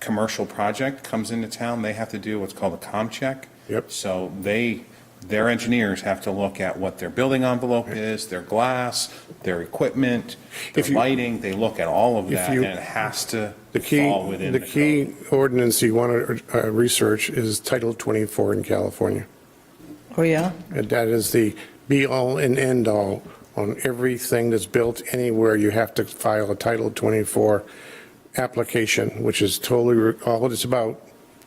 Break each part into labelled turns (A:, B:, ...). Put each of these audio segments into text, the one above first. A: commercial project comes into town, they have to do what's called a com check.
B: Yep.
A: So they, their engineers have to look at what their building envelope is, their glass, their equipment, their
B: If you-
A: lighting, they look at all of
B: If
A: that,
B: you-
A: and it has to
B: The key,
A: fall within
B: the
A: code.
B: key ordinance you want to research is Title 24 in California.
C: Oh, yeah?
B: And that is the be-all and end-all on everything that's built anywhere. You have to file a Title 24 application, which is totally, re- all it's about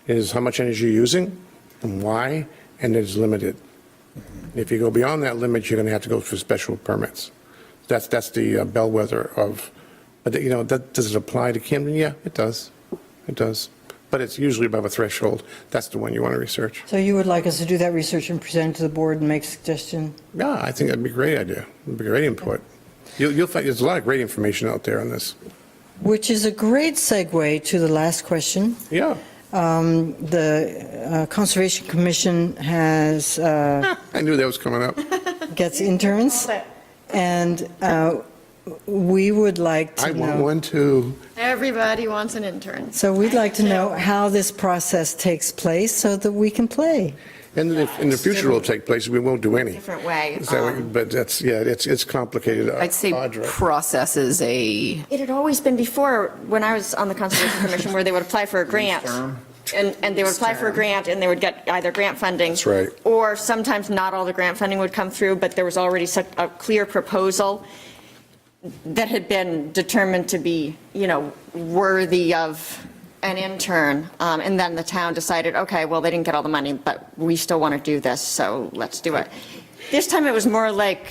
B: is how much energy you're using and why, and it's limited. If you go beyond that limit, you're going to have to go for special permits. That's, that's the uh, bellwether of, but you know, that, does it apply to Camden? Yeah, it does. It does. But it's usually above a threshold. That's the one you want to research.
C: So you would like us to do that research and present it to the board and make suggestion?
B: Yeah, I think that'd be a great idea. It'd be great input. You'll, you'll find, there's a lot of great information out there on this.
C: Which is a great segue to the last question.
B: Yeah,
C: Um, The uh, Conservation Commission has, uh,
B: I knew that was coming up.
C: gets interns, and uh, we would like
B: I
C: to
B: want
C: know.
B: one too.
D: Everybody wants an intern.
C: So we'd like to know how this process takes place so that we can play.
B: And in the, in the future will take place, we won't do any.
E: different way.
B: Is that what you-
E: Um,
B: But that's, yeah, it's, it's complicated. uh,
E: I'd say
B: Audra.
E: process is a,
D: It had always been before, when I was on the Conservation Commission, where they would apply for a grant. And, and they would apply for a grant and they would get either grant funding.
B: That's right.
D: Or sometimes not all the grant funding would come through, but there was already such a clear proposal that had been determined to be, you know, worthy of an intern. Um, And then the town decided, okay, well, they didn't get all the money, but we still want to do this, so let's do it. This time it was more like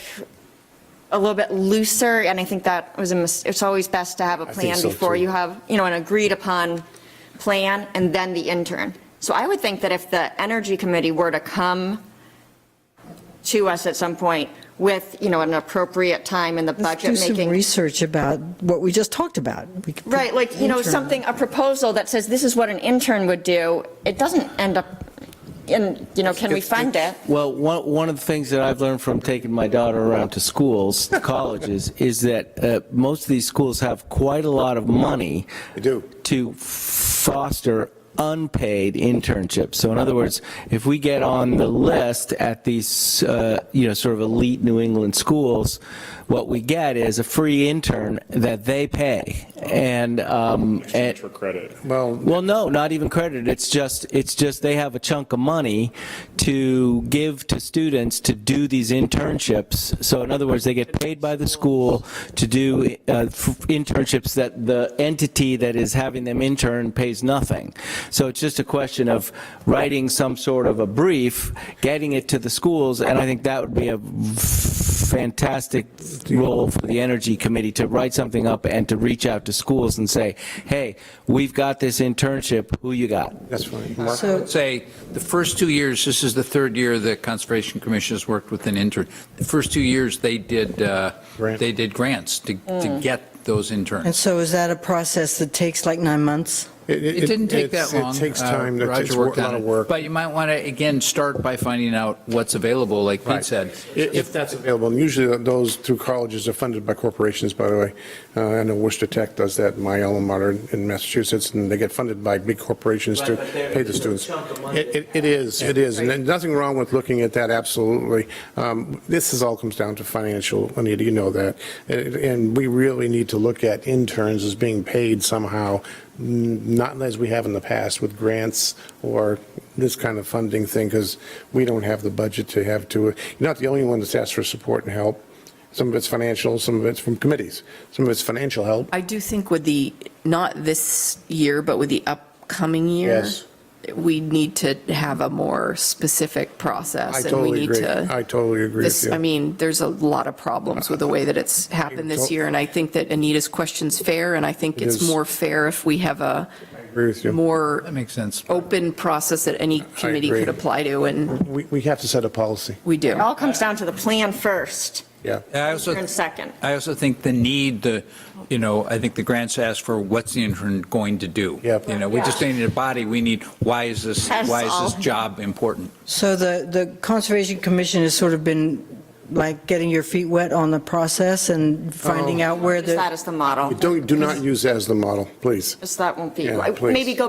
D: a little bit looser, and I think that was a, mis- it's always best to have a
B: think
D: plan
B: so,
D: before
B: too.
D: you have, you know, an agreed-upon plan and then the intern. So I would think that if the Energy Committee were to come to us at some point with, you know, an appropriate time in the
C: Let's do
D: budget
C: some
D: making.
C: research about what we just talked about. We could put
D: Right, like, you know,
C: intern.
D: something, a proposal that says this is what an intern would do, it doesn't end up in, you know, can we fund it?
F: Well, one, one of the things that I've learned from taking my daughter around to schools, to colleges, is that uh, most of these schools have quite a lot of money.
B: They do.
F: To foster unpaid internships. So in other words, if we get on the list at these, uh, you know, sort of elite New England schools, what we get is a free intern that they pay. And, um, and,
B: Well,
F: well, no, not even credit. It's just, it's just they have a chunk of money to give to students to do these internships. So in other words, they get paid by the school to do uh, f- internships that the entity that is having them intern pays nothing. So it's just a question of writing some sort of a brief, getting it to the schools, and I think that would be a fantastic role for the Energy Committee to write something up and to reach out to schools and say, hey, we've got this internship, who you got?
B: that's funny. Mark,
C: So-
G: would say, the first two years, this is the third year the Conservation Commission has worked with an intern. The first two years, they did, uh,
B: Grant.
G: they did grants to, to get those
C: And
G: interns.
C: so is that a process that takes like nine months?
G: It didn't take
B: it's-
G: that long.
B: It takes
G: Uh,
B: time. It's- It's
G: Roger
B: a
G: worked
B: lot
G: on
B: of
G: it.
B: work.
G: But you might want to, again, start by finding out what's available, like Pete said.
B: If that's available, and usually those through colleges are funded by corporations, by the way. Uh, I know Worcester Tech does that, my alma mater in Massachusetts, and they get funded by big corporations to
F: Right, but they're-
B: pay the
F: it's a
B: students.
F: chunk of money.
B: It, it- it is, it is, and then nothing wrong with looking at that, absolutely. Um, This is, all comes down to financial, Anita, you know that. And and we really need to look at interns as being paid somehow, n- not as we have in the past with grants or this kind of funding thing, because we don't have the budget to have to, you're not the only one that's asked for support and help. Some of it's financial, some of it's from committees, some of it's financial help.
E: I do think with the, not this year, but with the upcoming year,
B: Yes.
E: we need to have a more specific process.
B: I
E: and we
B: totally
E: need
B: agree.
E: to-
B: I totally agree
E: This-
B: with you.
E: I mean, there's a lot of problems with the way that it's happened this
B: tot-
E: year, and I think that Anita's question's fair, and I think
B: It
E: it's
B: is.
E: more fair if we have a
B: I agree with you.
E: more
G: That makes sense.
E: open process that any committee
B: agree.
E: could apply to, and
B: We, we have to set a policy,
E: we do.
D: It all comes down to the plan first,
B: yeah.
G: I also-
D: intern second.
G: I also think the need, the, you know, I think the grants ask for what's the intern going to do?
B: Yep.
G: You know, we just need a body, we need, why is this,
D: That's
G: why
D: all.
G: is this job important?
C: So the, the Conservation Commission has sort of been like getting your feet wet on the process and finding out where
D: Use
C: the.
D: that as the model.
B: Don't, do not use that as the model, please.
D: Just that won't be,
B: Yeah, please.
D: maybe go